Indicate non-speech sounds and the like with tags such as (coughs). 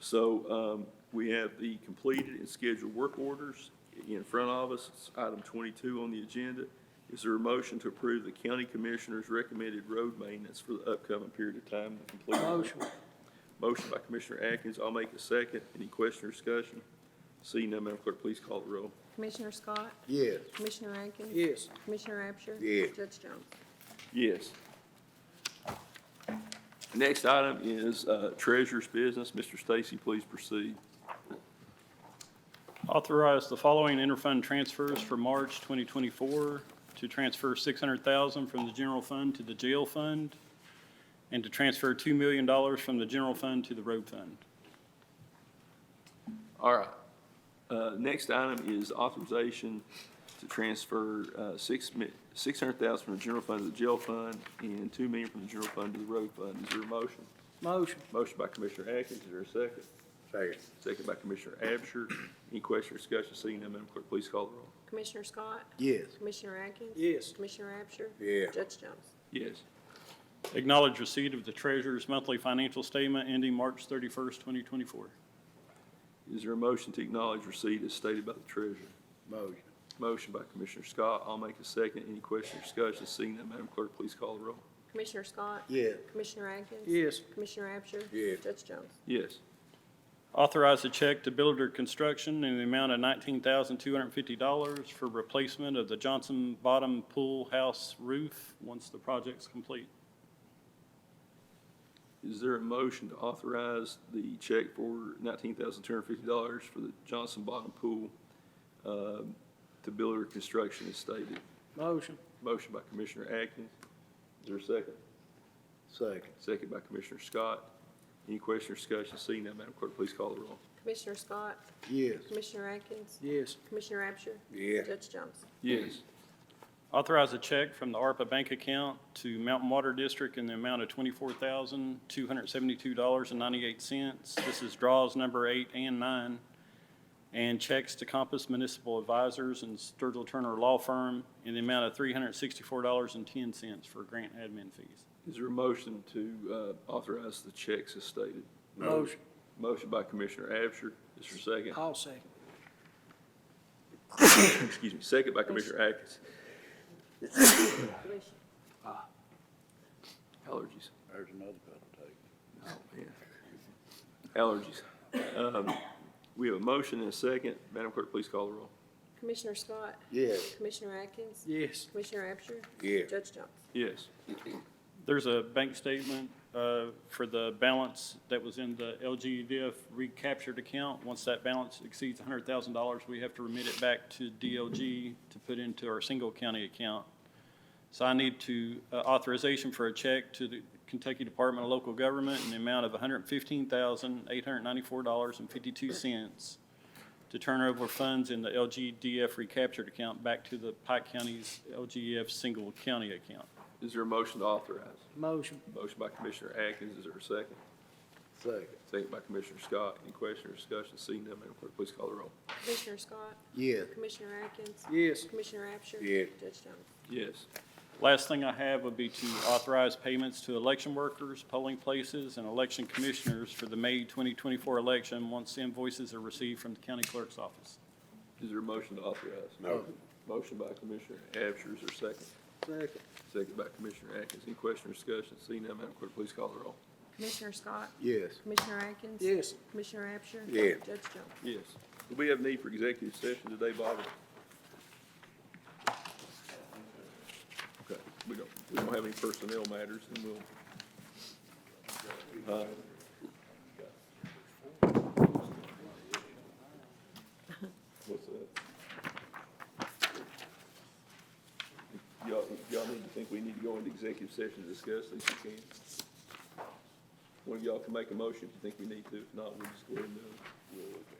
So um, we have the completed and scheduled work orders in front of us. It's item 22 on the agenda. Is there a motion to approve the county commissioner's recommended road maintenance for the upcoming period of time? the completed work? Motion. Motion by Commissioner Atkins. I'll make a second. Any question or discussion? Seeing none, Madam Clerk, please call the roll. Commissioner Scott? Yes. Commissioner Atkins? Yes. Commissioner Abshur? Yeah. Judge Jones? Yes. Next item is uh, treasurer's business. Mr. Stacy, please proceed. Authorize the following interfund transfers for March 2024 to transfer 600,000 from the general fund to the jail fund and to transfer $2 million from the general fund to the road fund. All right. Uh, Next item is authorization to transfer uh, six mi- 600,000 from the general fund to the jail fund and 2 million from the general fund to the road fund. Is there a motion? Motion. Motion by Commissioner Atkins, is there a second? Second. Second by Commissioner Abshur. Any question or discussion? Seeing none, Madam Clerk, please call the roll. Commissioner Scott? Yes. Commissioner Atkins? Yes. Commissioner Abshur? Yeah. Judge Jones? Yes. Acknowledge receipt of the treasurer's monthly financial statement ending March 31st, 2024. Is there a motion to acknowledge receipt as stated by the treasurer? Motion. Motion by Commissioner Scott, I'll make a second. Any question or discussion? Seeing none, Madam Clerk, please call the roll. Commissioner Scott? Yeah. Commissioner Atkins? Yes. Commissioner Abshur? Yeah. Judge Jones? Yes. Authorize a check to Builder Construction in the amount of $19,250 for replacement of the Johnson Bottom Pool House roof once the project's complete. Is there a motion to authorize the check for nineteen thousand two hundred fifty dollars for the Johnson Bottom Pool um, to Builder Construction as stated? Motion. Motion by Commissioner Atkins. Is there a second? Second. Second by Commissioner Scott. Any question or discussion? Seeing none, Madam Clerk, please call the roll. Commissioner Scott? Yes. Commissioner Atkins? Yes. Commissioner Abshur? Yeah. Judge Jones? Yes. Authorize a check from the ARPA bank account to Mountain Water District in the amount of twenty-four thousand, two hundred seventy-two dollars and ninety-eight cents. This is draws number eight and nine. And checks to Compass Municipal Advisors and Sturgill Turner Law Firm in the amount of three hundred sixty-four dollars and ten cents for grant admin fees. Is there a motion to uh, authorize the checks as stated? Motion. Motion by Commissioner Abshur. Is there a second? I'll second. (coughs) Excuse me. Second by Commissioner Atkins. (coughs) Ah. Commissioner- Allergies. There's another pedal Oh, man. Allergies. Um, We have a motion and a second. Madam Clerk, please call the roll. Commissioner Scott? Yes. Commissioner Atkins? Yes. Commissioner Abshur? Yeah. Judge Jones? Yes. There's a bank statement uh, for the balance that was in the LGDF recaptured account. Once that balance exceeds $100,000, we have to remit it back to DLG to put into our single county account. So I need to uh, authorization for a check to the Kentucky Department of Local Government in the amount of $115,894.52 to turn over funds in the LGDF recaptured account back to the Pike County's LGDF single county account. Is there a motion to authorize? Motion. Motion by Commissioner Atkins. Is there a second? Second. Second by Commissioner Scott. Any question or discussion? Seeing none, Madam Clerk, please call the roll. Commissioner Scott? Yes. Commissioner Atkins? Yes. Commissioner Abshur? Yeah. Judge Jones? Yes. Last thing I have would be to authorize payments to election workers, polling places, and election commissioners for the May 2024 election once invoices are received from the county clerk's office. Is there a motion to authorize? Motion. Motion by Commissioner Abshur. Is there a second? Second. Second by Commissioner Atkins. Any question or discussion? Seeing none, Madam Clerk, please call the roll. Commissioner Scott? Yes. Commissioner Atkins? Yes. Commissioner Abshur? Yeah. Judge Jones? Yes. Do we have need for executive session today, Bobby? Okay, we don't, we don't have any personnel matters, and we'll. uh, What's that? Y'all, y'all need to think we need to go into executive session to discuss this, you can. One of y'all can make a motion if you think we need to, if not, we'll just go ahead and do it.